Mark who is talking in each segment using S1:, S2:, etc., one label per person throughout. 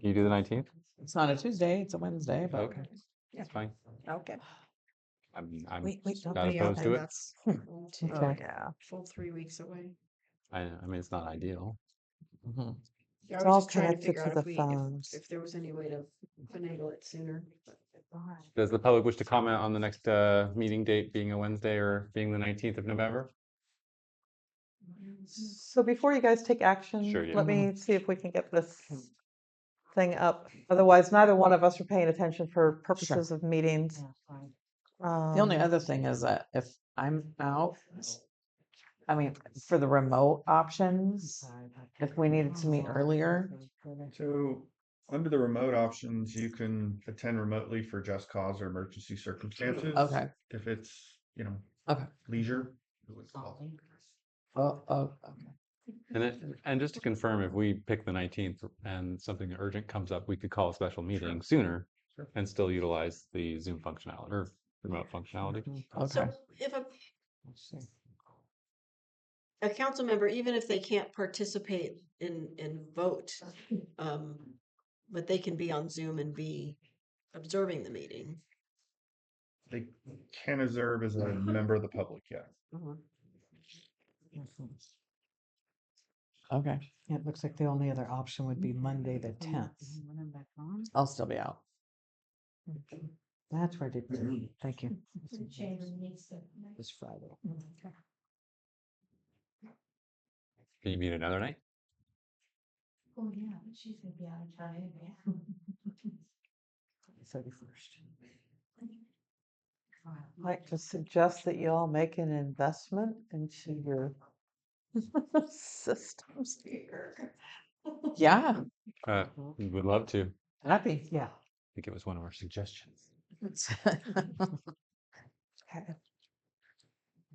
S1: Can you do the nineteenth?
S2: It's not a Tuesday, it's a Wednesday, but.
S1: Okay,
S3: Yeah.
S1: that's fine.
S3: Okay.
S1: I'm, I'm
S3: Wait, wait, don't
S1: not
S3: put me off.
S1: opposed to it.
S3: That's full two-
S2: Okay.
S3: yeah, Full three weeks away.
S1: I, I mean, it's not ideal.
S2: Mhm.
S3: Yeah,
S4: It's
S3: I was
S4: all
S3: just trying
S4: connected
S3: figure
S4: to
S3: out
S4: the
S3: if we- if-
S4: phones.
S3: If there was any way to finagle it sooner. but-
S1: Does the public wish to comment on the next, uh, meeting date being a Wednesday or being the nineteenth of November?
S4: So before you guys take action,
S1: Sure, yeah.
S4: let
S2: Mm-hmm.
S4: me see if we can
S2: Hmm.
S4: get this thing up. Otherwise, neither one of us are paying attention for purposes of meetings.
S2: The only
S4: Um,
S2: other thing is that if I'm out, I mean, for the remote options, if we needed to meet earlier,
S5: So, under the remote options, you can attend remotely for just cause or emergency circumstances.
S2: okay,
S5: If it's, you know.
S2: Okay.
S5: Leisure. it was called.
S2: oh, oh, okay.
S1: And then, and just to confirm, if we pick the nineteenth and something urgent comes up, we could call a special meeting sooner
S5: Sure.
S1: and still utilize the Zoom functionality or remote functionality.
S2: okay.
S3: So if a, a council member, even if they can't participate in, in vote, um, but they can be on Zoom and be observing the meeting.
S5: They can observe as a member of the public, yeah.
S2: Okay,
S6: It looks like the only other option would be Monday, the tenth.
S2: I'll still be out.
S6: That's where I did, thank you. This Friday.
S1: Can you meet another night?
S7: Oh, yeah, but she's gonna be out of time, yeah.
S6: Thirty-first.
S4: I'd Like to suggest that you all make an investment into your systems here.
S2: Yeah,
S1: Uh, we would love to. I
S2: happy.
S6: Yeah.
S1: think it was one of our suggestions.
S4: Okay.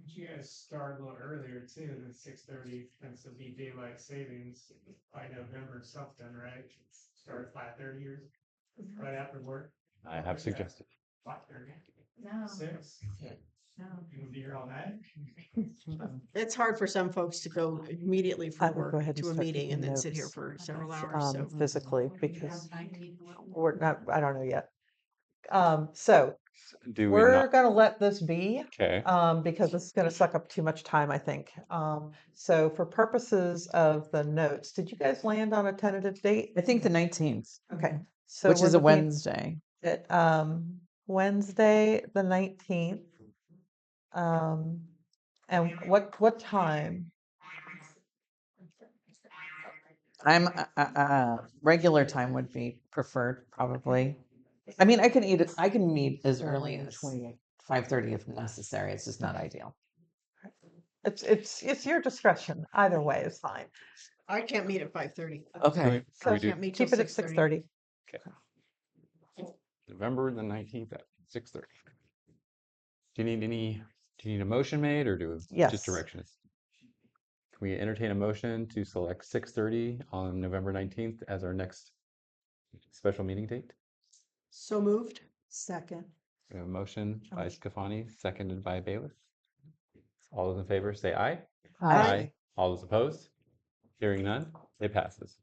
S8: You guys start a little earlier too than six thirty, since it'll be daylight savings by November something, right? Start at five thirty or right after work,
S1: I have
S8: Okay.
S1: suggested.
S8: five thirty,
S7: No,
S8: six.
S7: no.
S8: You'll be here all night.
S3: It's hard for some folks to go immediately
S4: I
S3: from
S4: will go
S3: work
S4: ahead and
S3: to a
S4: start
S3: meeting
S4: taking
S3: and then sit here
S4: notes,
S3: for several hours,
S4: Um,
S3: so.
S4: physically,
S7: What do you have,
S4: because
S7: 19 what?
S4: we're not, I don't know yet. Um, so
S1: Do we
S4: we're
S1: not?
S4: gonna let this be.
S1: Okay,
S4: um, because this is going to suck up too much time, I think. Um, so for purposes of the notes, did you guys land on a tentative date?
S2: I think the nineteenth,
S4: Okay. So
S2: which
S4: we're
S2: is a
S4: looking
S2: Wednesday.
S4: At, um, Wednesday, the nineteenth. Um, and what, what time?
S2: I'm, uh, uh, uh, regular time would be preferred, probably. I mean, I can eat, it- I can meet as early as
S6: Twenty-eight.
S2: five thirty if necessary. It's just not ideal.
S4: It's, it's, it's your discretion. Either way is fine.
S3: I can't meet at five thirty.
S1: Can
S2: Okay,
S1: we- can we
S3: I can't
S1: do
S3: meet till
S4: Oh, Keep it at six
S3: 6:30.
S4: thirty.
S1: November the nineteenth at six thirty? Do you need any, do you need a motion made or do? we
S4: Yes.
S1: Just directions? Can we entertain a motion to select six thirty on November nineteenth as our next special meeting date?
S3: So moved?
S4: Second.
S1: We have a motion by Scafani, seconded by Bayless. All those in favor, say aye.
S3: Aye.
S1: All those opposed? Hearing none, it passes.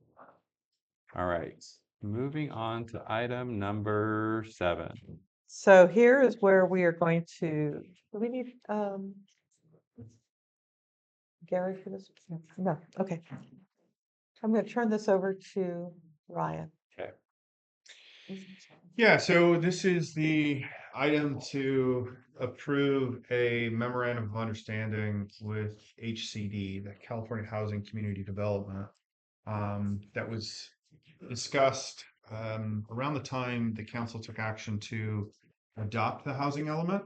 S1: All right, moving on to item number seven.
S4: So here is where we are going to, do we need, um, Gary for this? No, No, okay. I'm gonna turn this over to Ryan.
S5: Yeah, so this is the item to approve a memorandum of understanding with HCD, the California Housing Community Development. Um, that was discussed um around the time the council took action to adopt the housing element.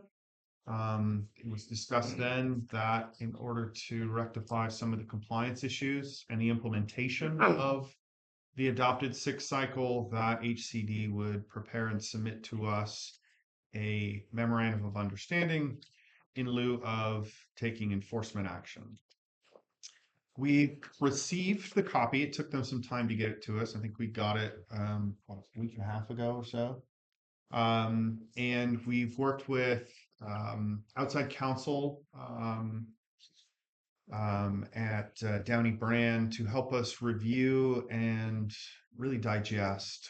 S5: Um, it was discussed then that in order to rectify some of the compliance issues and the implementation of the adopted six cycle that HCD would prepare and submit to us a memorandum of understanding in lieu of taking enforcement action. We received the copy. It took them some time to get it to us. I think we got it um, what, a week and a half ago or so. Um, and we've worked with um, outside counsel um, um, at uh, Downey Brand to help us review and really digest